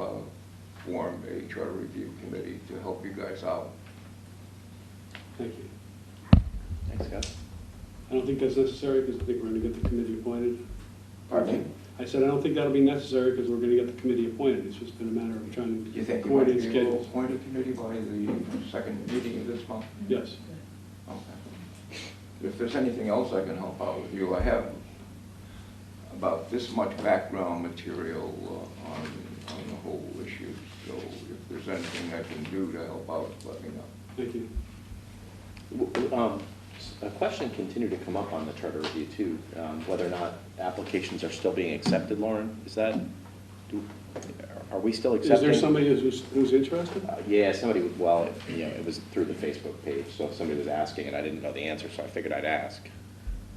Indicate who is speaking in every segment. Speaker 1: uh, form a charter review committee to help you guys out.
Speaker 2: Thank you.
Speaker 3: Thanks, Scott.
Speaker 2: I don't think that's necessary because I think we're going to get the committee appointed.
Speaker 3: Pardon
Speaker 2: I said, I don't think that'll be necessary because we're going to get the committee appointed. It's just been a matter of trying
Speaker 1: Do
Speaker 2: to.
Speaker 1: you think you might
Speaker 2: coordinate
Speaker 1: be able to
Speaker 2: schedules.
Speaker 1: appoint a committee by the second meeting of this month?
Speaker 2: Yes.
Speaker 1: Okay. If there's anything else I can help out with you, I have about this much background material uh, on, on the whole issue. So if there's anything I can do to help out, let me know.
Speaker 2: Thank you.
Speaker 3: W- w- um, s- A question continued to come up on the charter review too, um, whether or not applications are still being accepted, Lauren, is that, do- are we still accepting?
Speaker 2: Is there somebody who's, who's interested?
Speaker 3: Uh, Yeah, somebody, was- well, it- you know, it was through the Facebook page, so somebody was asking and I didn't know the answer, so I figured I'd ask.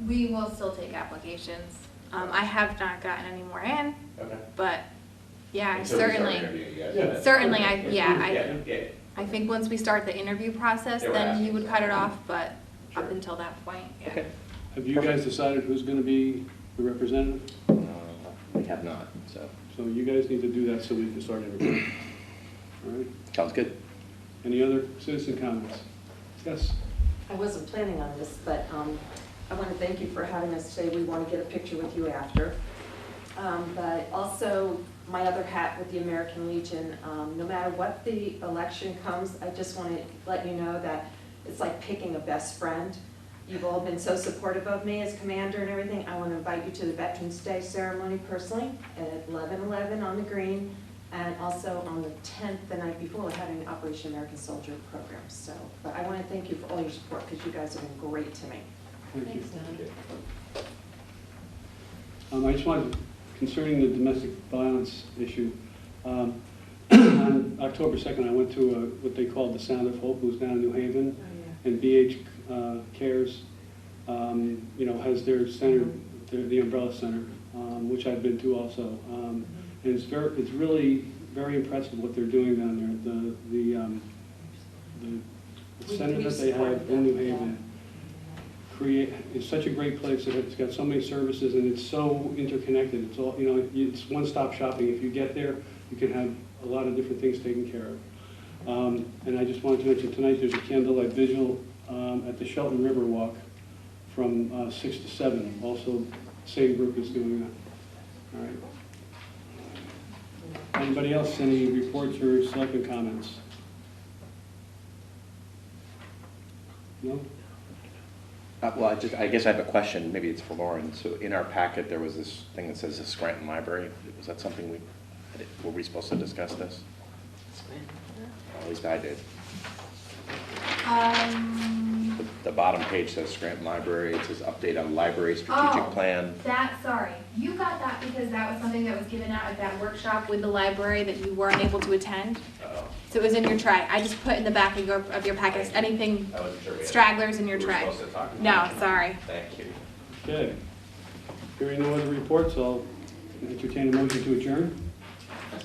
Speaker 4: We will still take applications. Um, I have not gotten any more in,
Speaker 3: Okay.
Speaker 4: but yeah,
Speaker 5: Until we start
Speaker 4: certainly,
Speaker 5: interviewing you guys,
Speaker 2: Yeah.
Speaker 5: that's-
Speaker 4: certainly, I, yeah,
Speaker 3: Yeah,
Speaker 4: I,
Speaker 3: yeah,
Speaker 4: I think once we start the interview process,
Speaker 5: Yeah, we're
Speaker 4: then you
Speaker 5: asking.
Speaker 4: would cut it off, but
Speaker 3: Sure.
Speaker 4: up until that point, yeah.
Speaker 3: okay.
Speaker 2: Have you guys decided who's going to be the representative?
Speaker 3: Uh, We have not, so,
Speaker 2: So you guys need to do that so we can start everything. All right.
Speaker 3: sounds good.
Speaker 2: Any other citizen comments? Yes.
Speaker 6: I wasn't planning on this, but um, I want to thank you for having us today. We want to get a picture with you after. Um, But also, my other hat with the American Legion, um, no matter what the election comes, I just want to let you know that it's like picking a best friend. You've all been so supportive of me as commander and everything. I want to invite you to the Veterans Day ceremony personally at 11:11 on the green, and also on the 10th, the night before, we're having Operation American Soldier program, so. But I want to thank you for all your support, because you guys have been great to me.
Speaker 2: Thank you.
Speaker 6: Don.
Speaker 2: Um, I just wanted, concerning the domestic violence issue, um, on October 2nd, I went to uh, what they call the Sound of Hope, who's down in New Haven, and BH uh, Cares, um, you know, has their center, their- the Umbrella Center, um, which I've been to also. Um, And it's very, it's really very impressive what they're doing down there, the, the, um, the
Speaker 6: We-
Speaker 2: center
Speaker 6: we
Speaker 2: that they have
Speaker 6: supported
Speaker 2: in New
Speaker 6: them, yeah.
Speaker 2: Haven create, it's such a great place, and it's got so many services, and it's so interconnected, it's all, you know, it's one-stop shopping, if you get there, you can have a lot of different things taken care of. Um, And I just wanted to mention, tonight, there's a candlelight vigil um, at the Shelton River Walk from uh, six to seven, also same group is doing that, all right? Anybody else, any reports or selectmen comments? No?
Speaker 3: Uh, Well, I just, I guess I have a question, maybe it's for Lauren. So in our packet, there was this thing that says the Scranton Library. Was that something we, were we supposed to discuss this? At least I did. The-
Speaker 4: Um,
Speaker 3: The bottom page says Scranton Library, it says update on library strategic
Speaker 4: Oh.
Speaker 3: plan.
Speaker 4: that, sorry, you got that because that was something that was given out at that workshop with the library that you weren't able to attend.
Speaker 5: Oh,
Speaker 4: So it was in your tray. I just put in the back of your, of your packets, anything
Speaker 5: I wasn't sure. we had-
Speaker 4: stragglers in your
Speaker 5: we were
Speaker 4: tray.
Speaker 5: supposed to talk.
Speaker 4: No, sorry.
Speaker 5: Thank you.
Speaker 2: Okay. Hearing no other reports, I'll entertain a motion to adjourn.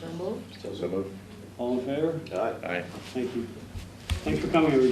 Speaker 3: So moved.
Speaker 2: All in favor?
Speaker 3: Aye.
Speaker 2: Thank you. Thanks for coming, everybody.